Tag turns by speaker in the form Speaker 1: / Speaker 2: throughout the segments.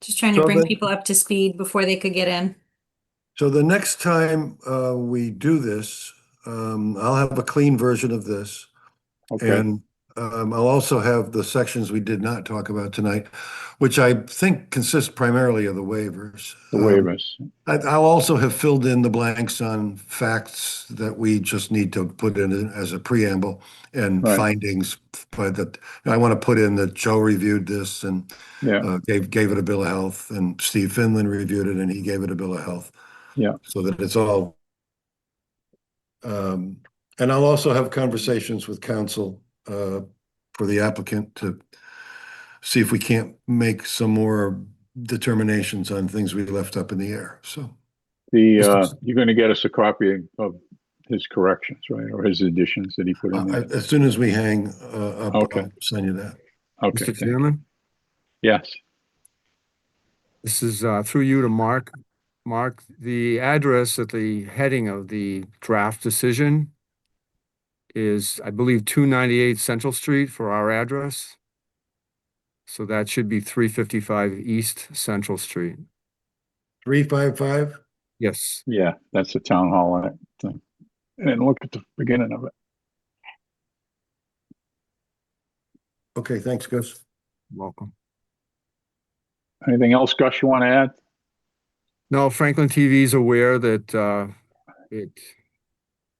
Speaker 1: Just trying to
Speaker 2: So
Speaker 1: bring
Speaker 2: then-
Speaker 1: people up to speed before they could get in.
Speaker 2: So the next time uh, we do this, um, I'll have a clean version of this.
Speaker 3: Okay,
Speaker 2: And um, I'll also have the sections we did not talk about tonight, which I think consist primarily of the waivers.
Speaker 3: the
Speaker 2: Um,
Speaker 3: waivers.
Speaker 2: I- I'll also have filled in the blanks on facts that we just need to put in as a preamble and
Speaker 3: Right.
Speaker 2: findings. But that, I want to put in that Joe reviewed this and
Speaker 3: Yeah,
Speaker 2: uh, gave, gave it a bill of health and Steve Finland reviewed it and he gave it a bill of health.
Speaker 3: Yeah.
Speaker 2: So that it's all. Um, and I'll also have conversations with council, uh, for the applicant to see if we can't make some more determinations on things we left up in the air. So,
Speaker 3: the,
Speaker 2: Mr.
Speaker 3: uh,
Speaker 2: S-
Speaker 3: you're gonna get us a copy of his corrections, right, or his additions that he put in
Speaker 2: uh,
Speaker 3: there?
Speaker 2: as soon as we hang, uh, up,
Speaker 3: Okay.
Speaker 2: I'll send you that.
Speaker 3: Okay,
Speaker 4: Mr.
Speaker 3: thank-
Speaker 4: Chairman,
Speaker 3: yes,
Speaker 4: this is uh, through you to Mark. Mark, the address at the heading of the draft decision is, I believe, 298 Central Street for our address. So that should be 355 East Central Street.
Speaker 2: Three, five, five?
Speaker 4: Yes,
Speaker 3: yeah, that's the town hall act thing. And look at the beginning of it.
Speaker 2: Okay, thanks, Gus.
Speaker 4: welcome.
Speaker 3: Anything else, Gus, you wanna add?
Speaker 4: No, Franklin TV is aware that uh, it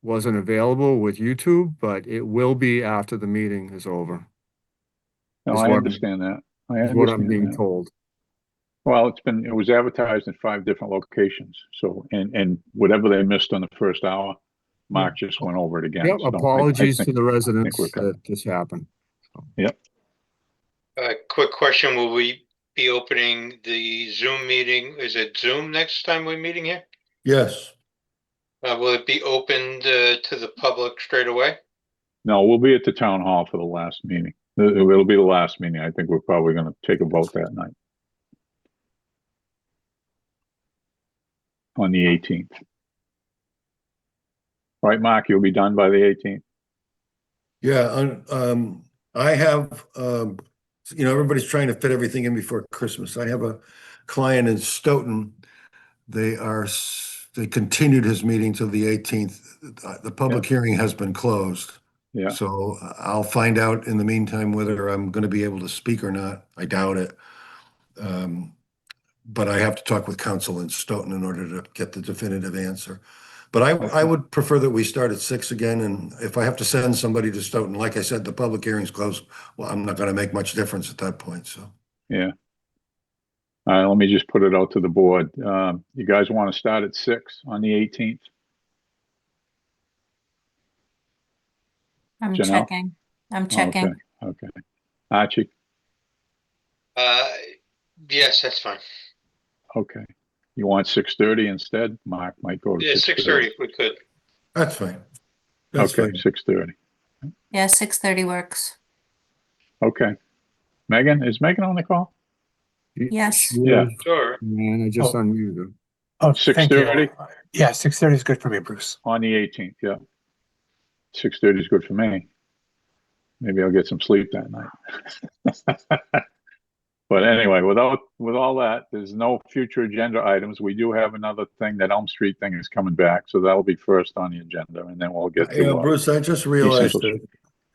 Speaker 4: wasn't available with YouTube, but it will be after the meeting is over,
Speaker 3: No,
Speaker 4: Is
Speaker 3: I
Speaker 4: what-
Speaker 3: understand that. I
Speaker 4: is what I'm
Speaker 3: understand
Speaker 4: being
Speaker 3: that.
Speaker 4: told.
Speaker 3: Well, it's been, it was advertised in five different locations, so, and, and whatever they missed on the first hour, Mark just went over it again.
Speaker 4: Yep,
Speaker 3: so I- I
Speaker 4: apologies
Speaker 3: think-
Speaker 4: to the residents
Speaker 3: we're good.
Speaker 4: that this happened.
Speaker 5: A quick question, will we be opening the Zoom meeting? Is it Zoom next time we're meeting here?
Speaker 2: Yes.
Speaker 5: Uh, will it be opened, uh, to the public straight away?
Speaker 3: No, we'll be at the town hall for the last meeting. Uh, It- It'll be the last meeting. I think we're probably gonna take a vote that night. On the eighteenth. Right, Mark, you'll be done by the eighteenth?
Speaker 2: Yeah, un- um, I have, um, you know, everybody's trying to fit everything in before Christmas. I have a client in Stoughton. They are, s- they continued his meeting till the eighteenth. The public hearing has been closed.
Speaker 3: Yeah.
Speaker 2: So I- I'll find out in the meantime whether I'm gonna be able to speak or not. I doubt it. Um, but I have to talk with counsel in Stoughton in order to get the definitive answer. But I, I would prefer that we start at six again, and if I have to send somebody to Stoughton, like I said, the public hearing's closed. Well, I'm not gonna make much difference at that point, so.
Speaker 3: All right, let me just put it out to the board. Um, you guys wanna start at six on the eighteenth?
Speaker 1: I'm
Speaker 3: Janelle? Oh,
Speaker 1: checking. I'm checking.
Speaker 3: Okay, okay. Archie,
Speaker 5: Uh, yes, that's fine.
Speaker 3: okay. You want six thirty instead? Mark might go to.
Speaker 5: Yeah, six thirty if we could.
Speaker 2: That's fine. That's
Speaker 3: Okay,
Speaker 2: fine.
Speaker 3: six thirty.
Speaker 1: Yeah, six thirty works.
Speaker 3: Okay. Megan, is Megan on the call?
Speaker 1: Yes.
Speaker 3: Yeah.
Speaker 5: Sure.
Speaker 4: Man, I just unmuted him.
Speaker 6: Oh,
Speaker 3: Six
Speaker 6: thank you.
Speaker 3: thirty?
Speaker 6: Yeah, six thirty is good for me, Bruce.
Speaker 3: On the eighteenth, yeah. Six thirty is good for me. Maybe I'll get some sleep that night. But anyway, without, with all that, there's no future agenda items. We do have another thing, that Elm Street thing is coming back, so that'll be first on the agenda, and then we'll get
Speaker 2: You
Speaker 3: to.
Speaker 2: know,
Speaker 3: uh,
Speaker 2: Bruce, I just realized
Speaker 3: Central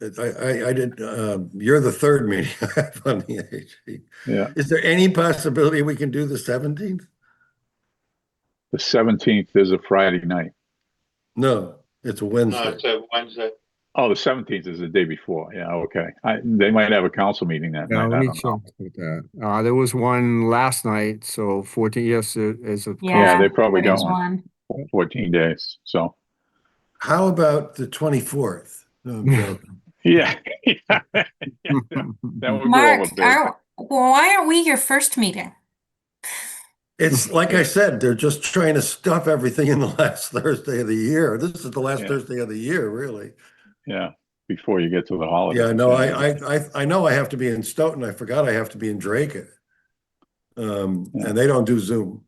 Speaker 2: that, that I, I, I did, um, you're the third meeting I have on the AHP.
Speaker 3: Yeah,
Speaker 2: Is there any possibility we can do the seventeenth?
Speaker 3: the seventeenth is a Friday night.
Speaker 2: No, it's a
Speaker 5: No,
Speaker 2: Wednesday.
Speaker 5: it's a uh, Wednesday.
Speaker 3: Oh, the seventeenth is the day before, yeah, okay. I, they might have a council meeting that
Speaker 4: Yeah,
Speaker 3: night, I
Speaker 4: let me
Speaker 3: don't know.
Speaker 4: check with that. Uh, there was one last night, so fourteen, yes, there is a.
Speaker 3: Yeah,
Speaker 1: Yeah,
Speaker 3: they probably
Speaker 1: There's
Speaker 3: got one, fourteen days, so,
Speaker 2: How about the twenty-fourth? No, I'm joking.
Speaker 3: yeah. That would go over
Speaker 1: Mark,
Speaker 3: big.
Speaker 1: are, why aren't we your first meeting?
Speaker 2: It's like I said, they're just trying to stuff everything in the last Thursday of the year. This is the last
Speaker 3: Yeah.
Speaker 2: Thursday of the year, really.
Speaker 3: Yeah, before you get to the holiday.
Speaker 2: Yeah, no, I, I, I, I know I have to be in Stoughton. I forgot I have to be in Drake. Um,
Speaker 3: Yeah.
Speaker 2: and they don't do Zoom.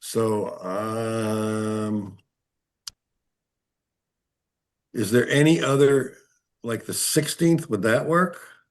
Speaker 2: So, um, is there any other, like the sixteenth, would that work?